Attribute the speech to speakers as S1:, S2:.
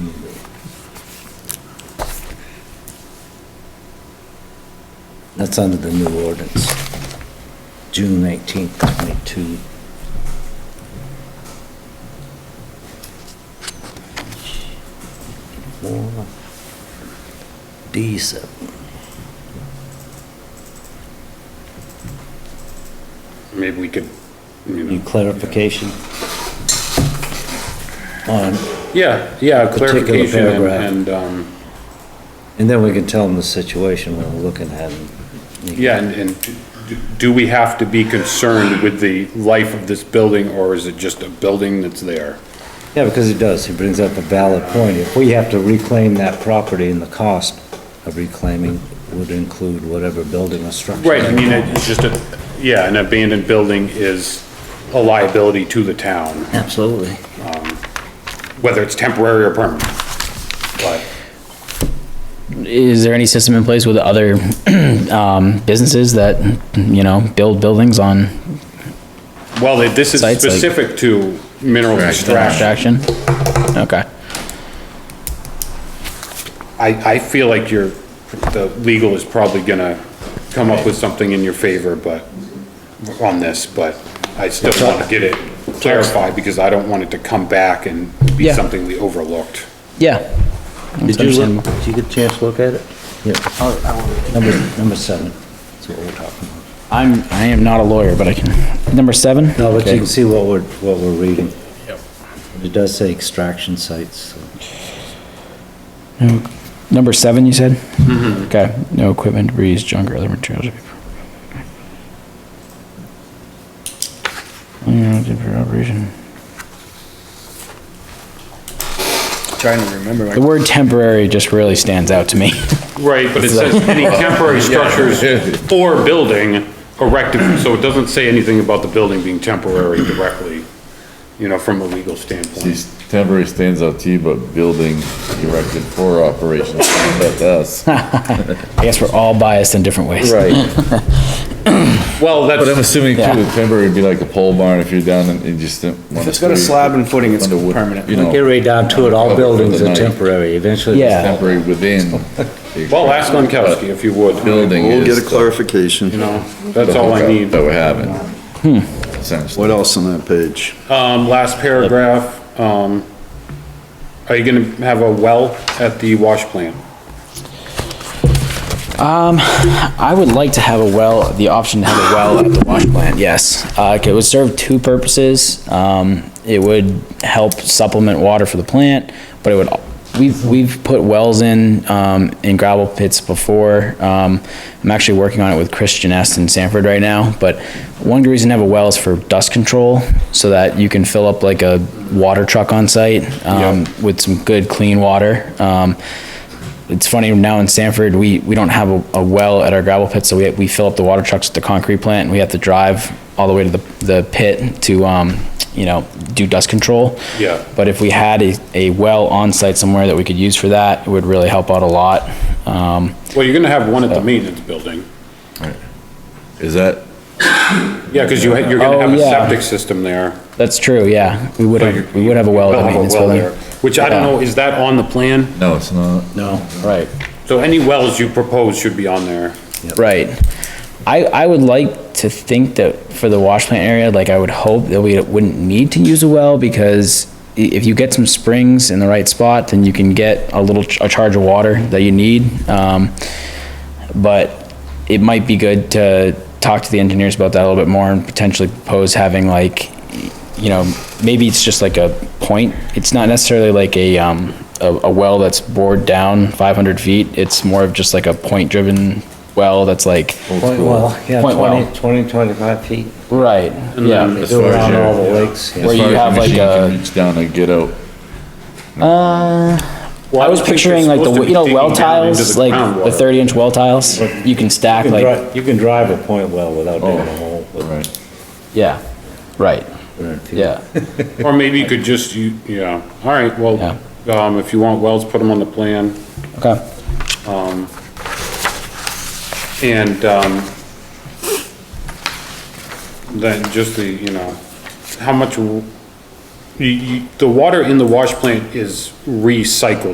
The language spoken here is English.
S1: That's under the new ordinance. June 18th, 22. Four, D7.
S2: Maybe we could, you know.
S1: Any clarification? On,
S2: Yeah, yeah,
S1: Particular
S2: clarification and-
S1: paragraph.
S2: and, um,
S1: and then we can tell them the situation we're looking at.
S2: yeah, and, and do- do we have to be concerned with the life of this building or is it just a building that's there?
S1: Yeah, because he does, he brings up a valid point. If we have to reclaim that property and the cost of reclaiming would include whatever building or structure.
S2: Right, I mean, it's just a, yeah, an abandoned building is a liability to the town,
S1: Absolutely.
S2: whether it's temporary or permanent. But,
S3: Is there any system in place with other um, businesses that, you know, build buildings on
S2: well, this is
S3: Sites like-
S2: specific to mineral extraction.
S3: extraction? Okay.
S2: I, I feel like you're, the legal is probably gonna come up with something in your favor, but, on this, but I still wanna get it clarified, because I don't want it to come back and be
S3: Yeah.
S2: something we overlooked.
S3: Yeah. That's
S4: Did you, look-
S3: understandable.
S4: did you get a chance to look at it?
S1: Yeah, number, number seven, that's what we're talking about.
S3: I'm, I am not a lawyer, but I can, number seven?
S1: No, but you
S3: Okay.
S1: can see what we're, what we're reading. It does say extraction sites, so.
S3: Number seven, you said? Mm-hmm. Okay, no equipment, debris, junk, or other materials. or people. Yeah, did for operation.
S5: Trying to remember.
S3: The
S5: my-
S3: word temporary just really stands out to me.
S2: Right, but it says any temporary structures or building erected, so it doesn't say anything about the building being temporary directly, you know, from a legal standpoint.
S6: These temporary stands out to you, but building erected for operation, that's us.
S3: I guess we're all biased in different ways.
S6: Right.
S2: Well,
S6: But I'm
S2: that's,
S6: assuming too,
S3: Yeah.
S6: the temporary would be like a pole barn if you're down and you just don't want to.
S5: If it's got a slab and footing, it's permanent.
S6: You
S1: Get
S6: know,
S1: right down to it, all buildings are temporary, eventually.
S3: Yeah.
S6: temporary within.
S2: well, ask Lankowski if you would, you
S6: Building
S4: We'll get
S6: is
S4: a
S6: the
S4: clarification.
S2: know, that's all I
S6: hookup
S2: need.
S6: That we're having.
S3: Hmm.
S6: Essentially.
S4: What else on that page?
S2: Um, last paragraph, um, are you gonna have a well at the wash plant?
S3: I would like to have a well, the option to have a well at the wash plant, yes. Uh, it would serve two purposes. Um, it would help supplement water for the plant, but it would, we've, we've put wells in, um, in gravel pits before. Um, I'm actually working on it with Christian S. in Sanford right now, but one of the reasons to have a well is for dust control, so that you can fill up like a water truck on site, um, with some good clean water. Um, it's funny now in Sanford, we, we don't have a, a well at our gravel pit, so we, we fill up the water trucks at the concrete plant and we have to drive all the way to the, the pit to, um, you know, do dust control.
S2: Yeah.
S3: But if we had a, a well on site somewhere that we could use for that, it would really help out a lot. Um,
S2: Well, you're gonna have one at the
S3: Uh,
S2: maintenance building.
S6: Is that,
S2: Yeah, cause you, ha- you're gonna
S3: Oh,
S2: have a
S3: yeah.
S2: septic system there.
S3: that's true, yeah. We would
S2: so you're-
S3: have, we would have a well at the
S2: You'll have
S3: maintenance
S2: well
S3: building.
S2: there, Which I don't
S3: Yeah.
S2: know, is that on the plan?
S6: no, it's not.
S3: No, right.
S2: So any wells you propose should be on there.
S3: Right. I, I would like to think that for the wash plant area, like I would hope that we wouldn't need to use a well because i- if you get some springs in the right spot, then you can get a little, ch- a charge of water that you need. Um, but it might be good to talk to the engineers about that a little bit more and potentially propose having like, you know, maybe it's just like a point. It's not necessarily like a, um, a, a well that's bored down five hundred feet. It's more of just like a point-driven well that's like,
S1: Point well, yeah,
S3: Point well.
S1: 20, 20, 25 feet.
S3: right, yeah.
S1: They
S6: As
S1: do
S6: far as
S1: around
S6: your-
S1: all the lakes. yeah.
S3: Where
S6: As
S3: you
S6: far as the
S3: have, like,
S6: machine can
S3: a-
S6: Reach down and get out.
S2: Well,
S3: I was picturing like the, you know, well tiles, like the thirty inch well tiles, you can stack
S1: You can
S3: like,
S1: dri- You can drive a point well without digging a
S6: Oh,
S1: hole. but-
S6: Right.
S3: yeah, right, yeah.
S2: Or maybe you could just, you, yeah, all right, well, um, if you want wells, put them on the plan.
S3: Okay.
S2: And, um, then just the, you know, how much, w- you, you, the water in the wash plant is recycled.